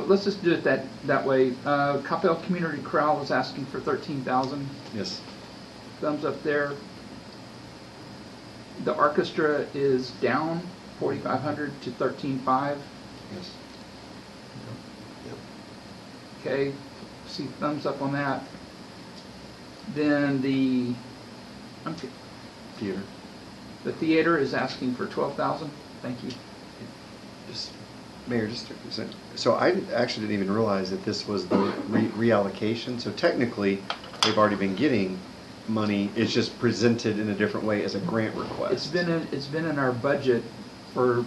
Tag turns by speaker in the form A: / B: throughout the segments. A: let's just do it that, that way. Uh, Capel Community Corral was asking for thirteen thousand,
B: Yes.
A: thumbs up there. The orchestra is down forty-five hundred to thirteen-five,
B: Yes.
A: okay, see thumbs up on that. Then the, I'm t-
B: Theater.
A: the theater is asking for twelve thousand, thank you.
B: Just, Mayor, just, a second. so I didn't- actually didn't even realize that this was the re- reallocation. So technically, they've already been getting money. It's just presented in a different way as a grant request.
A: It's been, in- it's been in our budget for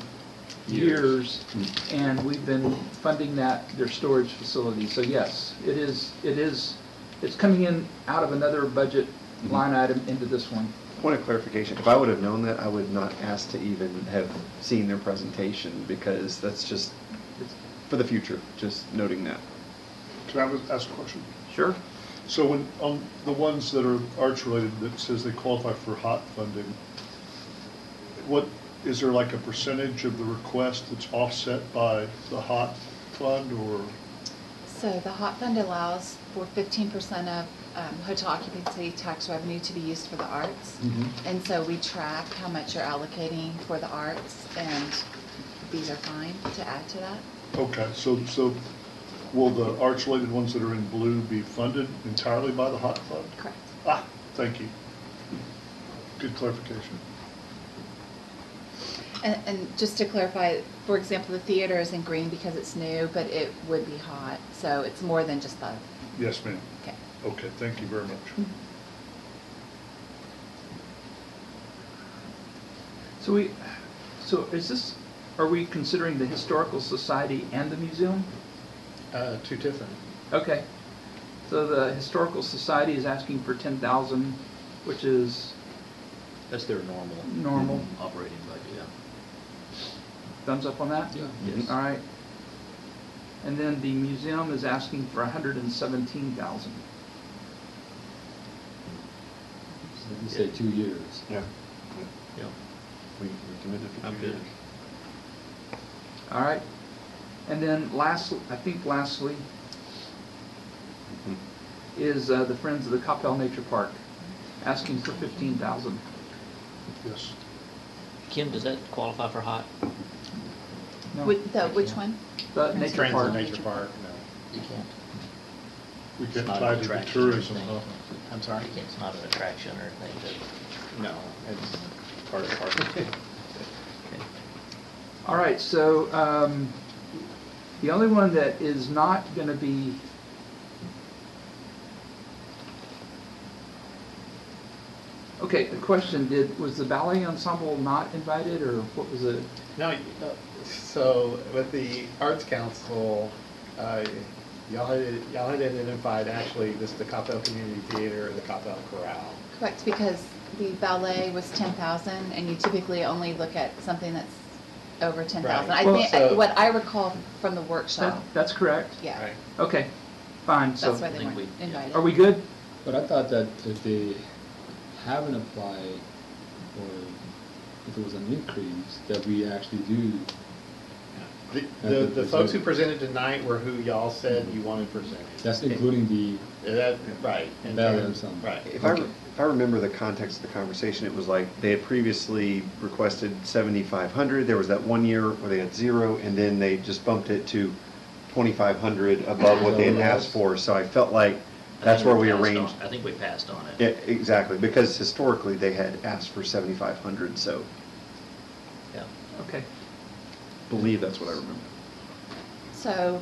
A: years,
B: Years. Hmm.
A: and we've been funding that, their storage facility. So yes, it is, it is, it's coming in out of another budget
B: Mhm.
A: line item into this one.
B: Point of clarification, if I would have known that, I would not ask to even have seen their presentation because that's just
A: It's-
B: for the future, just noting that.
C: Can I ask a question?
A: Sure.
C: So when, on the ones that are arts related that says they qualify for hot funding, what, is there like a percentage of the request that's offset by the hot fund or?
D: So the hot fund allows for fifteen percent of um, hotel occupancy tax revenue to be used for the arts. And so we track how much you're allocating for the arts and these are fine to add to that.
C: Okay, so, so will the arts related ones that are in blue be funded entirely by the hot fund?
D: Correct.
C: Ah, thank you. Good clarification.
D: And, and just to clarify, for example, the theater is in green because it's new, but it would be hot, so it's more than just the,
C: Yes, ma'am.
D: okay.
C: Okay, thank you very much.
A: So we, so is this, are we considering the Historical Society and the museum?
E: Uh, two different.
A: Okay. So the Historical Society is asking for ten thousand, which is
E: That's their normal
A: normal.
E: operating budget, yeah.
A: Thumbs up on that?
E: Yes.
A: All right. And then the museum is asking for a hundred and seventeen thousand.
F: You say two years.
B: Yeah.
E: Yeah.
B: We we committed for
E: I'm
B: two
E: good.
B: years.
A: All right. And then last, I think lastly,
B: Mhm.
A: is uh, the Friends of the Capel Nature Park asking for fifteen thousand.
C: Yes.
G: Kim, does that qualify for hot?
D: Which- The, which one?
A: The
D: Friends
A: nature
E: Friends of
A: park.
E: Nature Park,
G: You can't.
C: We
G: It's
C: can
G: not an
C: tie it to
G: attraction or
C: tourism,
G: anything.
C: huh?
E: I'm sorry?
G: It's not an attraction or anything,
E: no, no, it's part of the park.
A: All right, so um, the only one that is not going to be Okay, the question did was the ballet ensemble not invited or what was it?
E: No, you- uh, so with the Arts Council, uh, y'all had, y'all had identified actually this, the Capel Community Theater, the Capel Corral.
D: Correct, because the ballet was ten thousand, and you typically only look at something that's over ten thousand. I
E: Right.
D: think,
E: Well, so-
D: what I recall from the
A: That,
D: workshop,
A: that's correct.
D: yeah,
E: right?
A: Okay, fine. So
D: that's why they
G: I think
D: weren't
G: we- yeah.
D: invited.
A: are we good?
F: But I thought that if they haven't applied, or if it was an increase, that we actually do.
E: The, the, the folks who presented tonight were who y'all said you wanted presented.
F: That's including the,
E: Yeah, That, right. and
F: Valid
E: then-
F: or something.
E: Right.
B: If I, re- if I remember the context of the conversation, it was like, they had previously requested seventy-five hundred, there was that one year where they had zero, and then they just bumped it to twenty-five hundred above what they had asked for, so I felt like
G: but.
B: that's where we
G: I think passed
B: arranged.
G: on- I think we passed on it.
B: Yeah, exactly, because historically, they had asked for seventy-five hundred, so
G: Yeah.
A: Okay.
B: believe that's what I remember.
D: So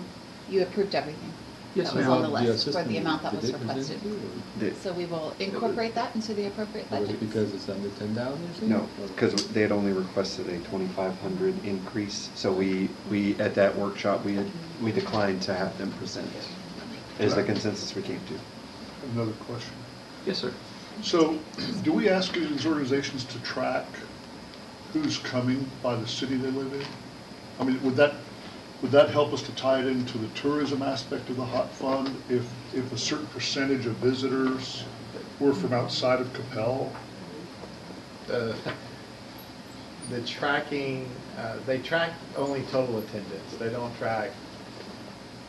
D: you approved everything?
A: Yes,
D: That was
A: ma'am.
D: on the
F: the
D: list for
F: assistant,
D: the amount that
F: did
D: was
F: they present
D: requested.
F: it,
B: The-
D: So we will incorporate that into the appropriate
F: or- Or was
D: budget.
F: it because it's under ten thousand or something?
B: No, because they had only requested a twenty-five hundred increase, so we, we, at that workshop, we had, we declined to have them present, is the consensus we came to.
C: Another question.
A: Yes, sir.
C: So, do we ask these organizations to track who's coming by the city they live in? I mean, would that, would that help us to tie it into the tourism aspect of the hot fund? If, if a certain percentage of visitors were from outside of Capel?
E: the, the tracking, uh, they track only total attendance, they don't track